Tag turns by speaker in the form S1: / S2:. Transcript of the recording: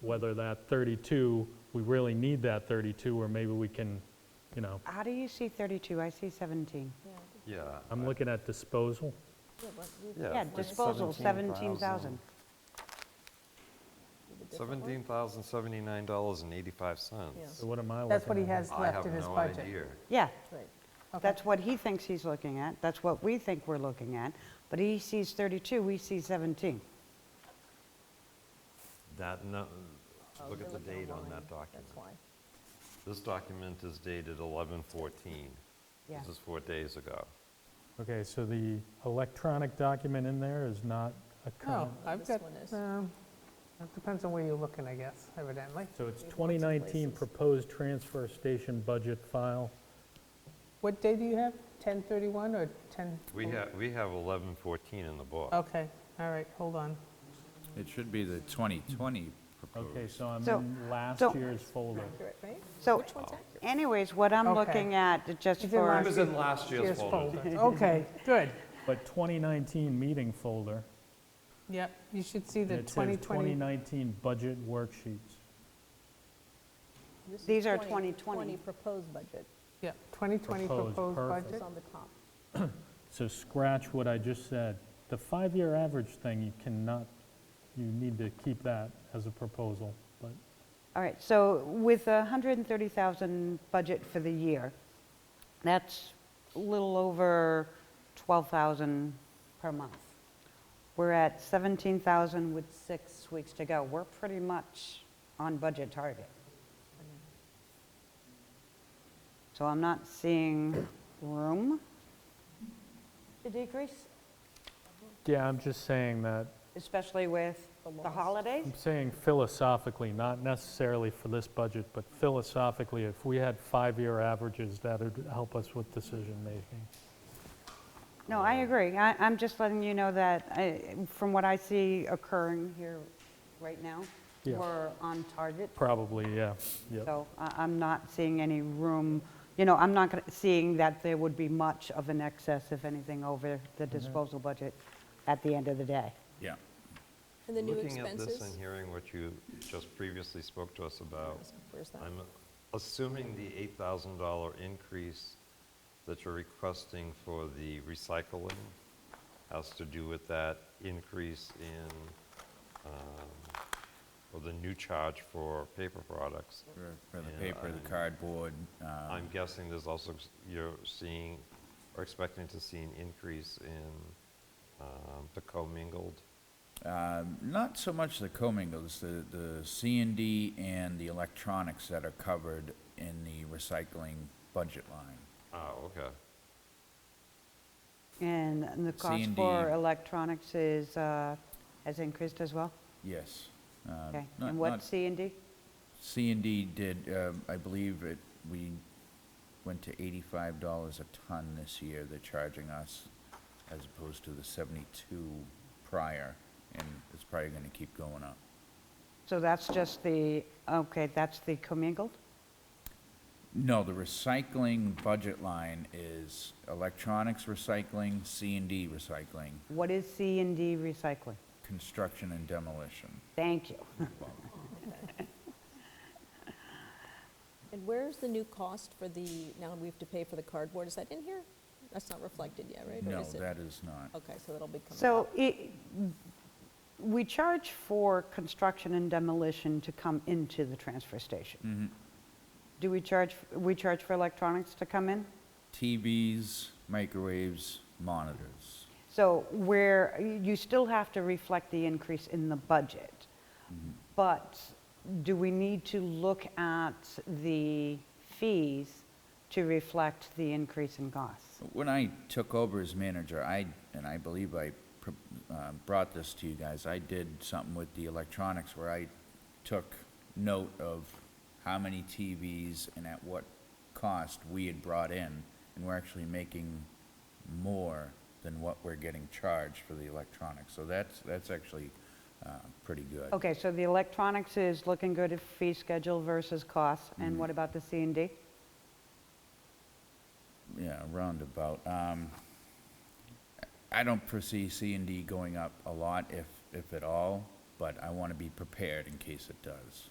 S1: whether that 32, we really need that 32, or maybe we can, you know,
S2: How do you see 32? I see 17.
S3: Yeah.
S1: I'm looking at disposal.
S2: Yeah, disposal, 17,000.
S3: Seventeen thousand seventy-nine dollars and eighty-five cents.
S1: So what am I looking at?
S4: That's what he has
S3: I
S4: left
S3: have
S4: in his
S3: no
S4: budget.
S3: idea.
S2: Yeah,
S4: Okay.
S2: that's what he thinks he's looking at, that's what we think we're looking at, but he sees 32, we see 17.
S3: That, no, look at the date on that document. This document is dated eleven fourteen.
S2: Yeah.
S3: This is four days ago.
S1: Okay, so the electronic document in there is not a
S4: No,
S2: Oh,
S1: current,
S4: I've
S5: This
S4: got,
S5: one is-
S2: uh,
S4: um, it depends on where you're looking, I guess, evidently.
S1: so it's 2019 proposed transfer station budget file.
S4: What day do you have? 10:31 or 10?
S3: We have, we have eleven fourteen in the book.
S4: Okay, all right, hold on.
S6: It should be the 2020 proposal.
S1: Okay, so I'm
S2: So-
S1: in last
S2: so-
S1: year's folder.
S2: So anyways, what I'm
S4: Okay.
S2: looking at, just
S4: Is it
S2: for,
S4: last-
S3: It was in last year's
S4: Yes,
S3: folder.
S4: folder. Okay, good.
S1: But 2019 meeting folder,
S4: Yep, you should see
S1: and
S4: the
S1: it says
S4: 2020.
S1: 2019 budget worksheets.
S5: This is
S2: These are
S5: 20,
S2: 2020.
S5: proposed budget,
S4: Yep, 2020
S1: Proposed,
S4: proposed
S1: perfect.
S4: budget.
S5: it's on the top.
S1: So scratch what I just said. The five-year average thing, you cannot, you need to keep that as a proposal, but
S2: all right, so with a 130,000 budget for the year, that's a little over 12,000 per month. We're at 17,000 with six weeks to go. We're pretty much on budget target. So I'm not seeing room to decrease,
S1: Yeah, I'm just saying that,
S2: especially with the holidays.
S1: I'm saying philosophically, not necessarily for this budget, but philosophically, if we had five-year averages, that'd help us with decision-making.
S2: No, I agree. I, I'm just letting you know that, I- from what I see occurring here right now,
S1: Yeah.
S2: we're on target.
S1: Probably, yeah, yeah.
S2: So I- I'm not seeing any room, you know, I'm not gonna- seeing that there would be much of an excess, if anything, over the disposal budget at the end of the day.
S6: Yeah.
S5: And the new
S3: Looking at
S5: expenses?
S3: this and hearing what you just previously spoke to us about,
S5: Where's that?
S3: I'm assuming the $8,000 increase that you're requesting for the recycling has to do with that increase in, um, or the new charge for paper products.
S6: For for the
S3: Yeah,
S6: paper, the
S3: I-
S6: cardboard, uh,
S3: I'm guessing there's also, s- you're seeing, or expecting to see an increase in um, the commingled.
S6: not so much the commingles, the the C and D and the electronics that are covered in the recycling budget line.
S3: Oh, okay.
S2: And the cost
S6: C&D.
S2: for electronics is, uh, has increased as well?
S6: Yes. Uh,
S2: Okay.
S6: not-
S2: And
S6: not-
S2: what C and D?
S6: C and D did, um, I believe it, we went to eighty-five dollars a ton this year, they're charging us, as opposed to the seventy-two prior, and it's probably gonna keep going up.
S2: So that's just the, okay, that's the commingled?
S6: No, the recycling budget line is electronics recycling, C and D recycling,
S2: What is C and D recycling?
S6: construction and demolition.
S2: Thank you.
S5: And where's the new cost for the, now we have to pay for the cardboard, is that in here? That's not reflected yet, right? Or
S6: No,
S5: is it?
S6: that is not.
S5: Okay, so that'll be coming.
S2: So it, we charge for construction and demolition to come into the transfer station. Do we charge, we charge for electronics to come in?
S6: TVs, microwaves, monitors.
S2: So where, you still have to reflect the increase in the budget, but do we need to look at the fees to reflect the increase in costs?
S6: When I took over as manager, I, and I believe I pr- uh, brought this to you guys, I did something with the electronics where I took note of how many TVs and at what cost we had brought in, and we're actually making more than what we're getting charged for the electronics. So that's, that's actually uh, pretty good.
S2: Okay, so the electronics is looking good at fee schedule versus costs, and what about the C and D?
S6: Yeah, roundabout. Um, I don't foresee C and D going up a lot, if, if at all. but I want to be prepared in case it does.